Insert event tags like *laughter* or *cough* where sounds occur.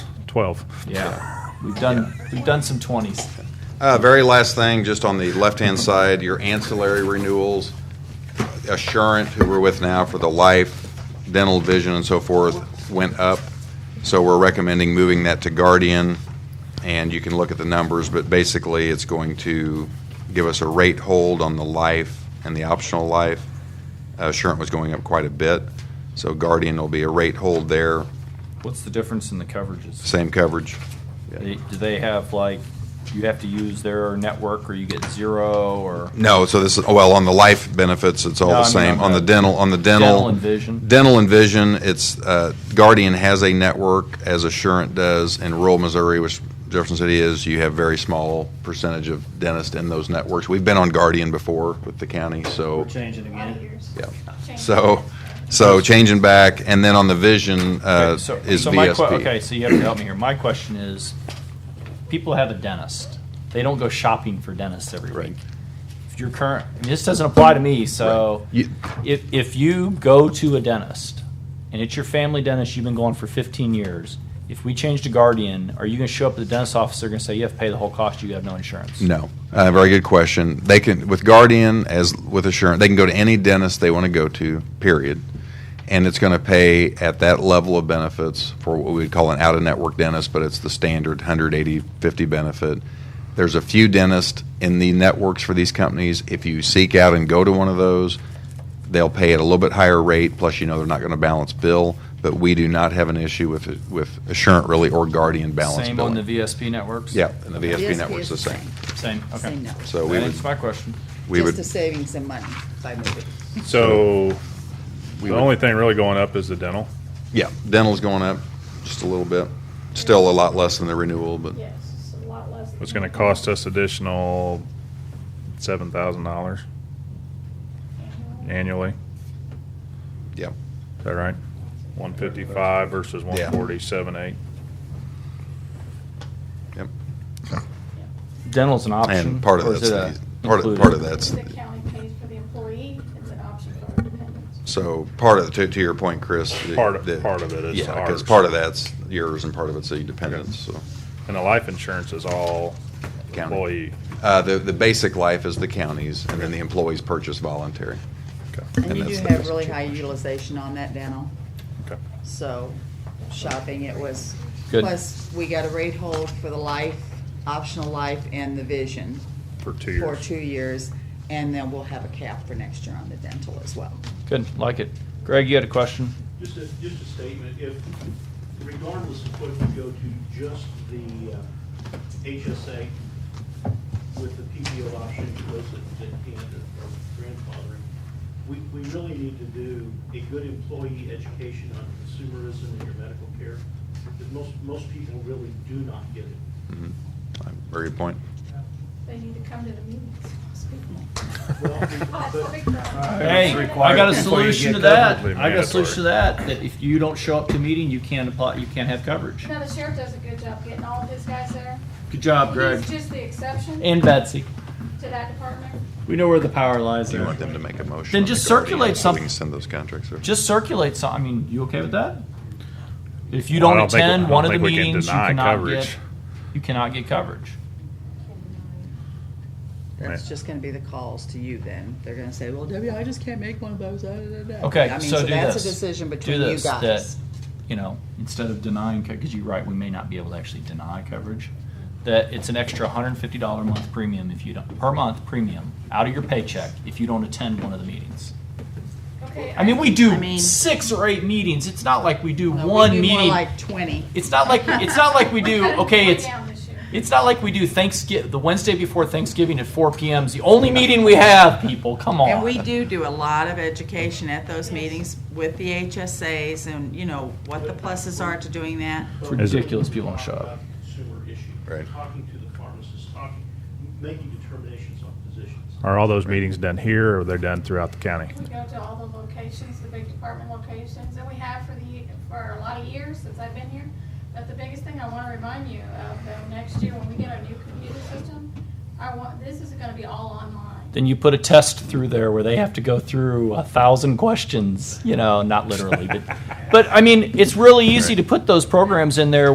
12. Yeah, we've done, we've done some twenties. Uh, Very last thing, just on the left-hand side, your ancillary renewals, Assurant, who we're with now for the life, dental, vision, and so forth, went up. So we're recommending moving that to Guardian, and you can look at the numbers, but basically, it's going to give us a rate hold on the life and the optional life. Assurant was going up quite a bit, so Guardian will be a rate hold there, What's the difference in the coverages? same coverage. They- Do they have like, you have to use their network or you get zero or? No, so this is, well, on the life benefits, it's all No, I the mean same. on On the the dental, on the dental. Dental and vision? Dental and vision, it's, uh, Guardian has a network, as Assurant does, in rural Missouri, which Jefferson City is, you have very small percentage of dentists in those networks. We've been on Guardian before with the county, so, We're changing again. yeah. So, so changing back, and then on the vision, uh, Okay, so- is so my que- Okay, VSP. so you have to help me here. My question is, people have a dentist. They don't go shopping for dentists every Right. week. If your current, I mean, this doesn't apply to me, so You- if, if you go to a dentist and it's your family dentist, you've been going for 15 years, if we change to Guardian, are you going to show up at the dentist's office, they're going to say, you have to pay the whole cost, you have no insurance? No, uh, very good question. They can, with Guardian, as with Assurant, they can go to any dentist they want to go to, period. And it's going to pay at that level of benefits for what we'd call an out-of-network dentist, but it's the standard 180, 50 benefit. There's a few dentists in the networks for these companies. If you seek out and go to one of those, they'll pay at a little bit higher rate, plus you know they're not going to balance bill. But we do not have an issue with, with Assurant really or Guardian balance Same on billing. the VSP networks? Yeah, and the VSP VSP network's the is same. Same, okay. Same network. So we would. That's my question. We Just would, the savings in money *laughs* by moving. So We the would- only thing really going up is the dental. yeah, dental's going up just a little bit. Still a lot less than the renewal, but Yes, it's a lot less. It's going to cost us additional $7,000 annually. yeah. Is that right? 155 versus Yeah. 147.8. Yep. Dental's an option? And part of or is that's, it a the- part of, included? part of that's, The county pays for the employee, it's an option for our dependents. so part of, to, to your point, Chris. the- Part of- the- part of it is Yeah, because ours. part of that's yours and part of it's the dependents, so. And the life insurance is all County. employee. Uh, the, the basic life is the counties and then the employees purchase voluntary. Okay. And you do that's the have best really choice. high utilization on that dental, Okay. so shopping, it was. Good. Plus, we got a rate hold for the life, optional life and the vision For two for years. two years. And then we'll have a cap for next year on the dental as well. Good, like it. Greg, you had a question? Just a, just a statement, if, regardless of whether you go to just the uh, HSA with the PPO option, which goes at at the end of of grandfathering, we, we really need to do a good employee education on consumerism in your medical care, because most, most people really do not get it. Mhm. Very good point. They need to come to the meetings. most people. Well, Oh, but- big problem. Hey, I got a solution to that. Mandatory. I got a solution to that, that if you don't show up to meeting, you can't apply, you can't have coverage. Now, the sheriff does a good job getting all of his guys there. Good job, Greg. He's just the exception to And Betsy. that department. We know where the power lies Do you there. want them to make a motion? Then on the just Guardian circulate so some- We can send those contracts over. Just circulate some, I mean, you okay with that? If you Well, I don't don't think- I attend don't one of the think we can meetings, you deny cannot coverage. get, you cannot get coverage. That's Right. just gonna be the calls to you then. They're gonna say, well, Debbie, I just can't make one of those. da, da, da, da." Okay, I mean, so do That's a this. decision Do between you this, that- guys. You know, instead of denying, because you're right, we may not be able to actually deny coverage, that it's an extra hundred and fifty dollar a month premium if you don't, per month premium, out of your paycheck, if you don't attend one of the meetings. Okay. I mean, we do I mean- six or eight meetings. It's not like we do No, we one do meeting. More like twenty. it's not like it's not like we do. cut it Okay, way it's down this year. it's not like we do Thanksgiving. The Wednesday before Thanksgiving at 4 p.m. is the only meeting we have. People, come on. And we do do a lot of education at those meetings with the HSAs and, you know, what the pluses are to doing that. It's ridiculous people don't show up. Consumer issue. Right. Talking to the pharmacist, talking, making determinations on physicians. Are all those meetings done here or are they done throughout the county? We go to all the locations, the big department locations, and we have for the, for a lot of years since I've been here. But the biggest thing I want to remind you of, though, next year when we get our new computer system, I want, this is going to be all online. Then you put a test through there where they have to go through a thousand questions. You know, not literally, but but I mean, it's really easy to put those programs in there